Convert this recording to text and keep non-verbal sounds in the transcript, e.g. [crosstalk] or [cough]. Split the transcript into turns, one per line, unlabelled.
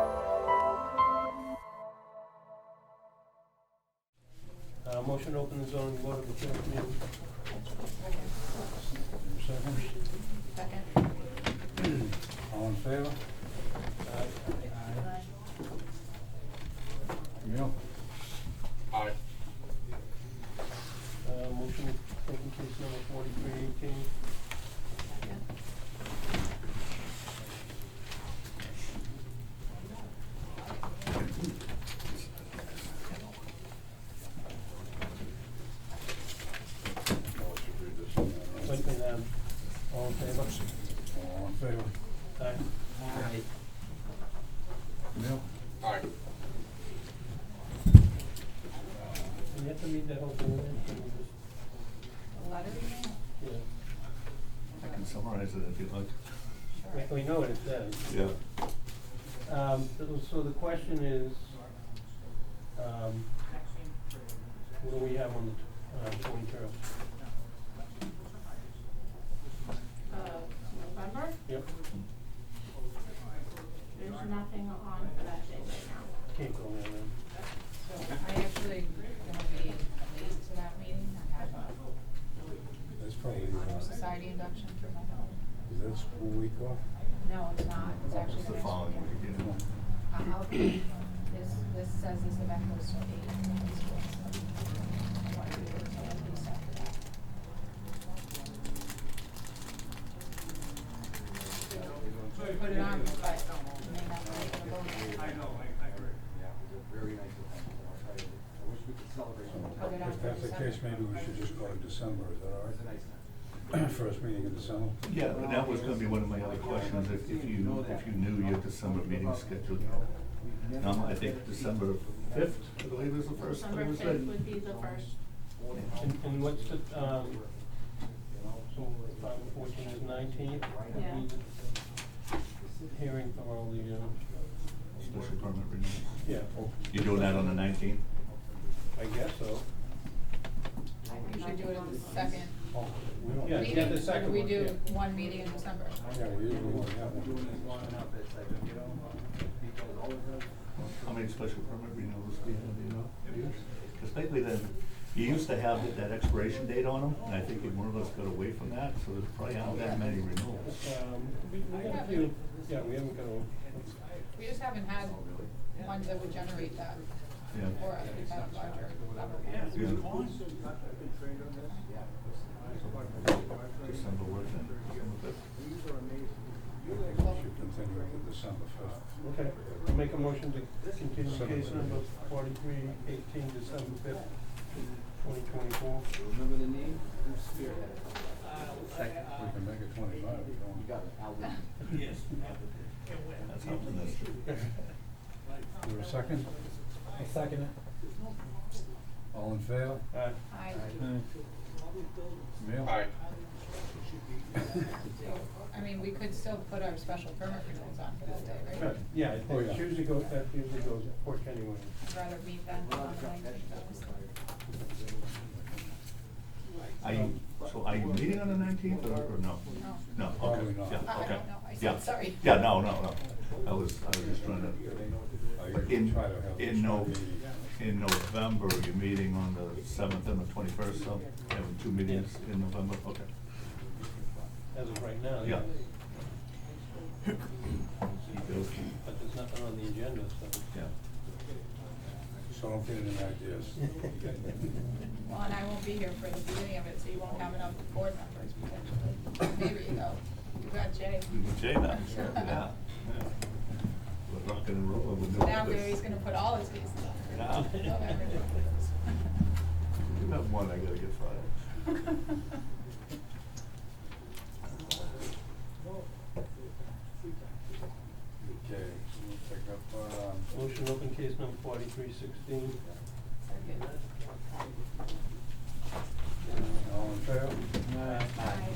Uh, motion to open the zoning board of appeals meeting.
Second,
Second.
all in favor? Aye. Camille?
Aye.
Uh, motion to open case number forty-three eighteen. Selectmen, um, all in favor?
All in favor?
Aye.
Camille?
Aye.
And you have to read that whole thing, right?
Letter,
yeah,
I can summarize it if you'd like.
We- we know what it says.
Yeah.
Um, so- so the question is, um, what do we have on the, t- uh, twenty-third?
uh, November,
Yep,
there's nothing on for that day right now.
can't go there then.
So I actually gonna be late to that meeting, I have a
That's probably,
honor
uh,
society induction for my daughter.
is that school week off?
No, it's not, it's actually
It's
the
the
next
following
weekend.
week, yeah.
Uh, okay, this, this says this event goes till eight, and this was, um, I want to do it till at least after that. We'll Put it on, but it may not be able to go. I know,
Yeah, it was a very nice event, and I'll tell you, I wish we could celebrate it.
Put it on
If
for
that's the case,
December.
maybe we should just go to December, is
It was a
that
nice time.
all right? [clears throat] First meeting in December?
Yeah, but that was gonna be one of my other questions, if, if you, if you knew your December meeting scheduled. Um, I think December fifth, I believe is the first that
December
it was
fifth
said.
would be the first,
And, and what's the, um, so five and fourteen is nineteenth?
Yeah.
Hearing for all the, um,
Special permit renewal.
yeah, oh,
You're doing that on the nineteenth?
I guess so.
I think we should do it on the second.
Oh, we don't.
Yeah,
meeting,
yeah, the
or do
second
we
one,
do
yeah.
one meeting in December?
Yeah, we usually only have one.
Doing this long enough, it's like, you know, uh, because all of us.
How many special permit renewals do you have, you know? Because lately then, you used to have that- that expiration date on them, and I think more of us got away from that, so there's probably not that many renewals.
Um, we, we got a few, yeah, we haven't got a,
We just haven't had ones that would generate that
Yeah.
for us, we've had larger level ones.
Yeah.
I've been trained on this. Yeah.
December what then? December fifth?
These are amazing.
I think we should continue it to December fifth.
okay, I'll make a motion to continue case number forty-three eighteen, December fifth, twenty twenty-four.
Remember the name, Bruce Spearhead.
Uh,
Second.
We can make it twenty-five, if you want.
You got it, Al Lee.
Yes.
That's helping us.
Is there a second?
I second it.
All in favor?
Aye.
I,
Camille?
Aye.
I mean, we could still put our special permit renewals on for that day, right?
But, Yeah, it-
Oh, yeah.
it usually goes, that usually goes quick anyway.
I'd rather meet them on the nineteenth,
Are you, so are you meeting on the nineteenth or, or no?
No.
No, okay, yeah, okay.
Probably not.
I- I don't know. I said
Yeah.
sorry.
Yeah, no, no, no, I was, I was just trying to,
I
but
usually
in,
try to have this
in no,
meeting.
in November, you're meeting on the seventh and the twenty-first, so having two meetings in November, okay,
As of right now.
yeah.
But there's nothing on the agenda,
[laughs]
so.
Yeah,
So don't get any ideas.
Well, and I won't be here for the beginning of it, so you won't have enough board members potentially. Maybe, though, you got Jay.
we can say that, sure, yeah, yeah. We're rocking and rolling, we're doing this.
Now Gary's gonna put all his cases
Yeah.
on. Oh, Love everyone.
You have one, I gotta get fired.
[laughs]
Okay, so we'll pick up, um,
Motion to open case number forty-three sixteen.
Second.
all in favor?
Aye.